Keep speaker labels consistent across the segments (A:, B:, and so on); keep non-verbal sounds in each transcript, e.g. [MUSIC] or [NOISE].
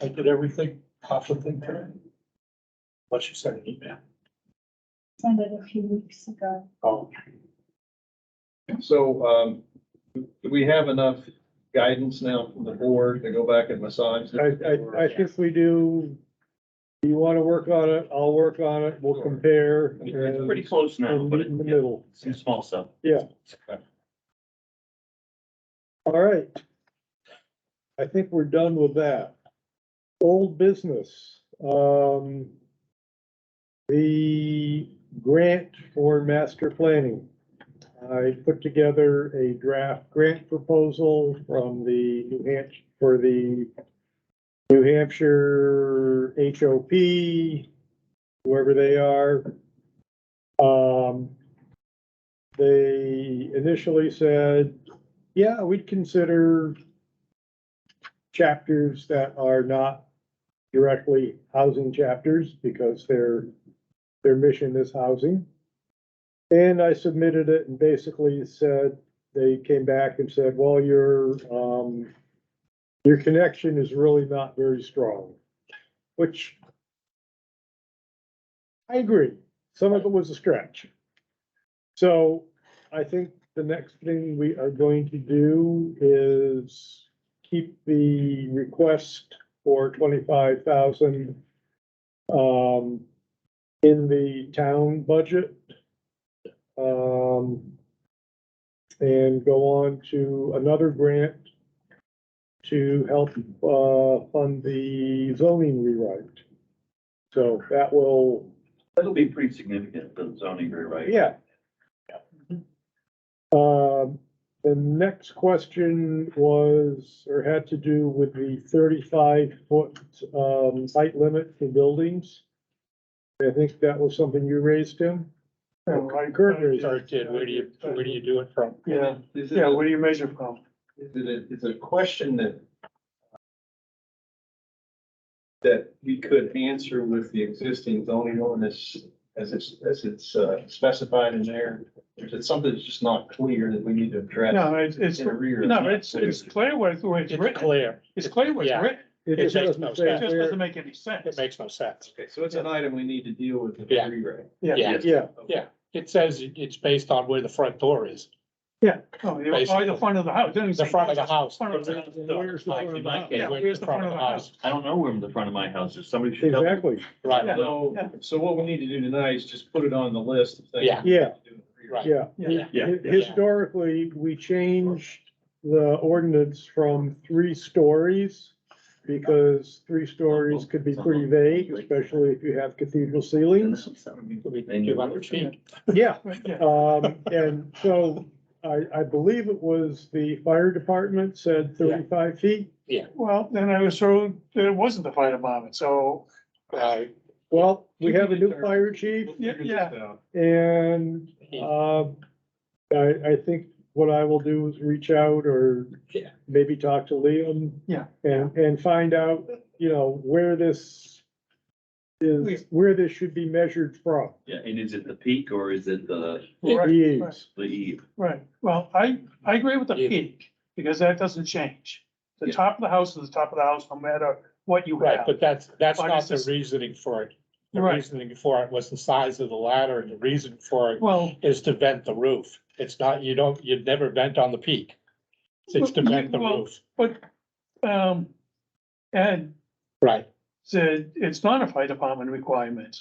A: I did everything, half the thing today. Unless you sent an email.
B: sent it a few weeks ago.
A: Oh,
C: So, um, do we have enough guidance now from the board to go back and massage?
D: I,
C: this?
D: I, I think we do, you wanna work on it, I'll work on it, we'll compare.
E: It's
D: and-
E: pretty close now,
D: And
E: but
D: meet
E: it-
D: in the
E: yeah,
D: middle.
E: it's a small stuff.
D: All right. I think we're done with that. Old business, um. The grant for master planning. I put together a draft grant proposal from the New Hampshire, for the New Hampshire HOP, whoever they are. Um. They initially said yeah, we'd consider chapters that are not directly housing chapters because their, their mission is housing. And I submitted it and basically said, they came back and said, well, your, um, your connection is really not very strong, which I agree. Some of it was a stretch. So I think the next thing we are going to do is keep the request for twenty-five thousand um, in the town budget. Um, and go on to another grant to help, uh, fund the zoning rewrite. So that will,
E: That'll be pretty significant, the zoning rewrite.
D: yeah. Um, the next question was, or had to do with the thirty-five foot, um, height limit for buildings. I think that was something you raised, Tim? Kurt raised
A: sorry,
D: it.
A: did, where do you, where do you do it from?
C: Yeah. Is it,
F: Yeah,
C: a-
F: where do you measure from?
C: is it, a- it's a question that that we could answer with the existing zoning ordinance as it's, as it's uh, specified in there? Or is it something that's just not clear that we need to address?
F: No, it's, it's,
C: in a rear?
F: no, it's, it's clear what, the way it's
A: It's
F: written.
A: clear,
F: It's clear what it's
A: Yeah.
F: written.
D: It
A: It makes
D: doesn't
A: no
D: say
F: It just
D: where-
F: doesn't make any
A: it
F: sense.
A: makes no sense.
C: Okay, so it's an item we need to deal with in
A: Yeah.
C: the rewrite.
A: Yeah,
D: Yeah,
A: yeah, it says it- it's based on where the front door is,
F: Oh, you- oh, the front of the house.
A: the front of the house.
F: Front of the house.
D: Where's the
E: Like in
D: front
E: my
D: of the
E: case,
F: Yeah,
A: Where's the front of the house?
E: I don't know where the front of my house is. Somebody should tell me.
D: exactly,
A: Right,
F: Yeah.
C: So,
F: Yeah.
C: so what we need to do tonight is just put it on the list of things.
A: Yeah.
C: we need to
D: Yeah.
C: do in the rewrite.
A: right.
D: yeah.
F: Yeah.
E: Yeah.
D: Hi- Historically, we changed the ordinance from three stories because three stories could be pretty vague, especially if you have cathedral ceilings.
A: Could be Two hundred feet,
D: Yeah,
F: Yeah.
D: [LAUGHS] um, and so I, I believe it was the fire department said thirty-five feet.
F: Well, then I was told that it wasn't the fire department, so,
A: right,
D: Well, we have a new fire chief
C: We'll figure this
F: Yeah.
C: out.
D: and, um, I, I think what I will do is reach out or
A: Yeah.
D: maybe talk to Liam.
F: Yeah.
D: And, and find out, you know, where this
F: Yeah.
D: is, where this should be measured from.
E: Yeah, and is it the peak or is it the,
F: Right,
D: He is.
F: right.
E: the eve?
F: right. Well, I, I agree with the
A: Yeah.
F: peak, because that doesn't change. The
E: Yeah.
F: top of the house is the top of the house, no matter what you
A: right,
F: have.
A: but that's, that's
F: But
A: not
F: it's
A: the
F: just-
A: reasoning for it. The
F: Right.
A: reasoning for it was the size of the ladder, and the reason for it
F: Well,
A: is to vent the roof. It's not, you don't, you'd never vent on the peak. It's to vent the
F: Well-
A: roof,
F: but, um, Ed
A: right?
F: said it's not a fire department requirement.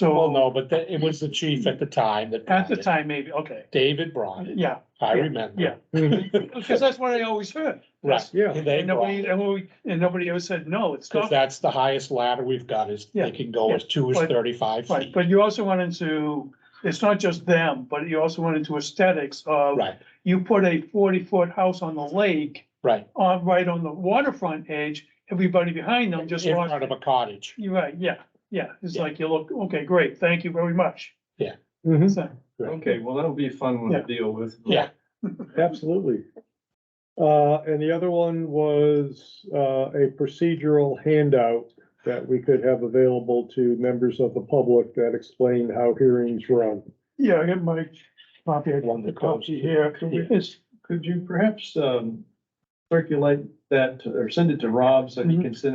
A: Well,
F: So
A: no, but that- it was the chief at the time that.
F: at the
A: brought it.
F: time, maybe, okay,
A: David brought it.
F: yeah,
A: I remember.
F: yeah. because that's what I always heard.
A: Right.
D: Yeah.
A: And they
F: And
A: brought
F: nobody,
A: it.
F: and we- and nobody ever said, no, it's
A: Cause
F: not.
A: that's the highest ladder we've got is
F: Yeah,
A: they can go as two as
F: but-
A: thirty-five
F: Right,
A: feet.
F: but you also went into, it's not just them, but you also went into aesthetics of,
A: Right,
F: you put a forty-foot house on the lake,
A: right.
F: on, right on the waterfront edge, everybody behind them
A: In
F: just
A: front
F: lost.
A: of a cottage.
F: You're right, yeah, yeah, it's
A: Yeah.
F: like you look, okay, great, thank you very much.
D: Mhm,
F: So,
C: Okay, well, that'll be a fun one to deal with.
A: Yeah.
D: Absolutely. Uh, and the other one was, uh, a procedural handout that we could have available to members of the public that explained how hearings run.
F: Yeah, I got my copy, I
A: One
F: the
A: that goes-
F: copy here, Could we- it's,
C: Could you perhaps, um, circulate that to- or send it to Rob so he
F: Mhm.
C: can send it